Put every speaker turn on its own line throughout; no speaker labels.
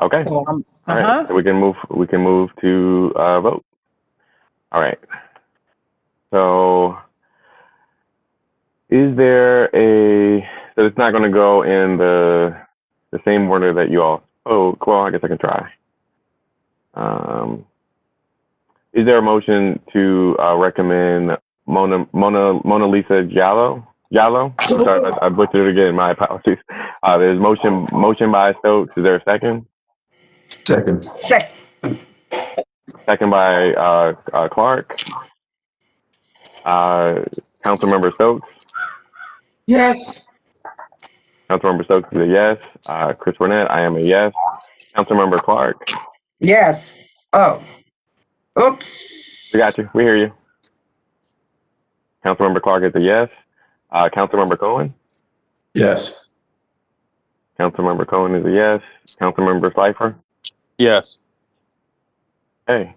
Okay.
So I'm,
All right,
uh-huh,
so we can move, we can move to uh, vote. All right. So is there a, so it's not going to go in the, the same order that you all spoke. Well, I guess I can try. Um, is there a motion to uh, recommend Mona, Mona, Mona Lisa Giallo? Giallo? I'm sorry, I, I butchered it again. My apologies. Uh, there's motion, motion by Stokes. Is there a second?
Second.
Sec,
Second by uh, uh, Clark. Uh, Councilmember Stokes.
yes,
Councilmember Stokes is a yes. Uh, Chris Burnett, I am a yes. Councilmember Clark.
yes. Oh,
We
oops.
got you. We hear you. Councilmember Clark is a yes. Uh, Councilmember Cohen.
Yes.
Councilmember Cohen is a yes. Councilmember Slifer.
Yes.
Hey.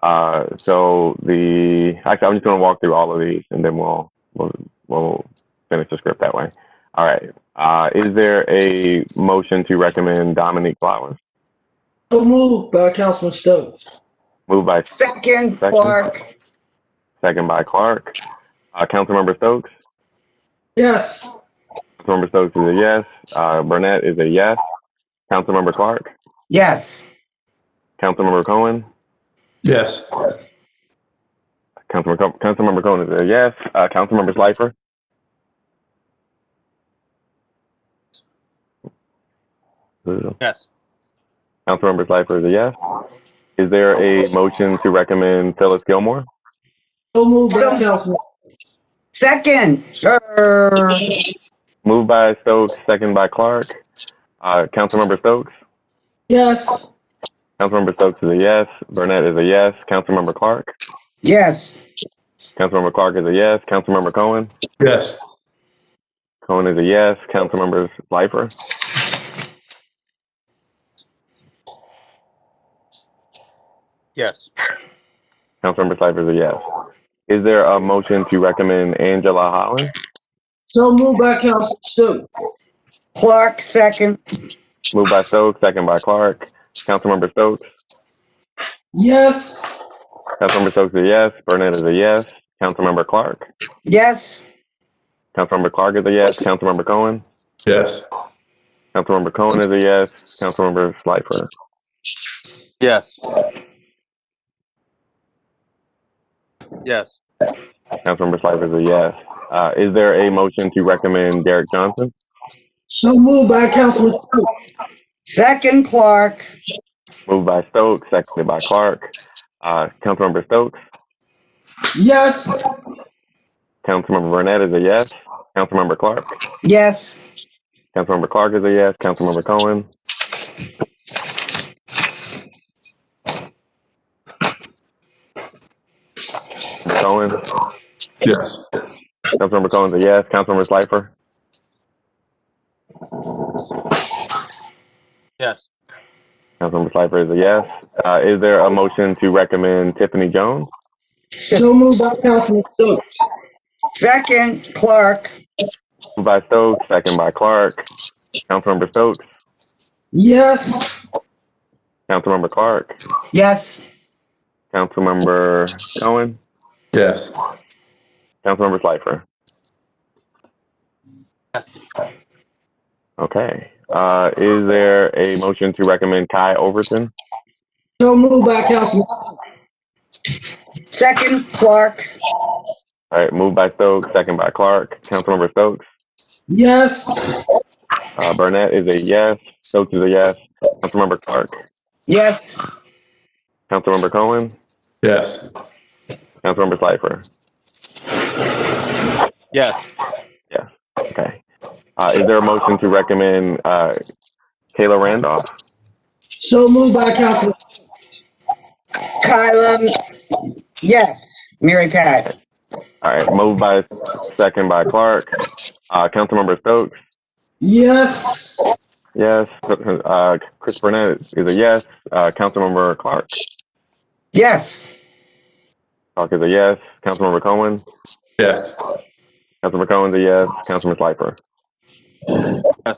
Uh, so the actually, I'm just going to walk through all of these, and then we'll we'll, we'll finish the script that way. All right. Uh, is there a motion to recommend Dominique Flowers?
so moved by Councilman Stokes.
Moved by Second.
Second, Clark,
second by Clark. Uh, Councilmember Stokes.
Yes,
Councilmember Stokes is a yes. Uh, Burnett is a yes. Councilmember Clark.
yes.
Councilmember Cohen.
Yes.
Councilmember, Co- Councilmember Cohen is a yes. Uh, Councilmember Slifer.
Yes.
Councilmember Slifer is a yes. Is there a motion to recommend Phyllis Gilmore?
so moved by
So-
Councilman,
Second, er,
Moved by Stokes, second by Clark. Uh, Councilmember Stokes.
yes,
Councilmember Stokes is a yes. Burnett is a yes. Councilmember Clark.
yes.
Councilmember Clark is a yes. Councilmember Cohen.
Yes.
Cohen is a yes. Councilmember Slifer.
Yes.
Councilmember Slifer is a yes. Is there a motion to recommend Angela Holland?
so moved by Councilman Stokes.
Clark, second,
Moved by Stokes, second by Clark. Councilmember Stokes.
Yes,
Councilmember Stokes is a yes. Burnett is a yes. Councilmember Clark.
yes.
Councilmember Clark is a yes. Councilmember Cohen.
Yes.
Councilmember Cohen is a yes. Councilmember Slifer.
Yes. Yes.
Councilmember Slifer is a yes. Uh, is there a motion to recommend Derek Johnson?
so moved by Councilman Stokes.
Second, Clark,
Moved by Stokes, seconded by Clark. Uh, Councilmember Stokes.
Yes,
Councilmember Burnett is a yes. Councilmember Clark.
yes.
Councilmember Clark is a yes. Councilmember Cohen. Councilmember Cohen.
Yes.
Councilmember Cohen's a yes. Councilmember Slifer.
Yes.
Councilmember Slifer is a yes. Uh, is there a motion to recommend Tiffany Jones?
so moved by Councilman Stokes.
Second, Clark,
Moved by Stokes, second by Clark. Councilmember Stokes.
Yes,
Councilmember Clark.
yes.
Councilmember Cohen.
Yes.
Councilmember Slifer.
Yes.
Okay. Uh, is there a motion to recommend Kai Overton?
so moved by Councilman Stokes.
Second, Clark,
All right, moved by Stokes, second by Clark. Councilmember Stokes.
Yes,
Uh, Burnett is a yes. Stokes is a yes. Councilmember Clark.
yes.
Councilmember Cohen.
Yes.
Councilmember Slifer.
Yes.
Okay. Uh, is there a motion to recommend uh, Kayla Randolph?
so moved by Councilman,
Kyla, yes. Mary Pat,
All right, moved by second by Clark. Uh, Councilmember Stokes.
yes,
Yes. Uh, Chris Burnett is a yes. Uh, Councilmember Clark.
yes.
Clark is a yes. Councilmember Cohen.
Yes.
Councilmember Cohen's a yes. Councilman Slifer.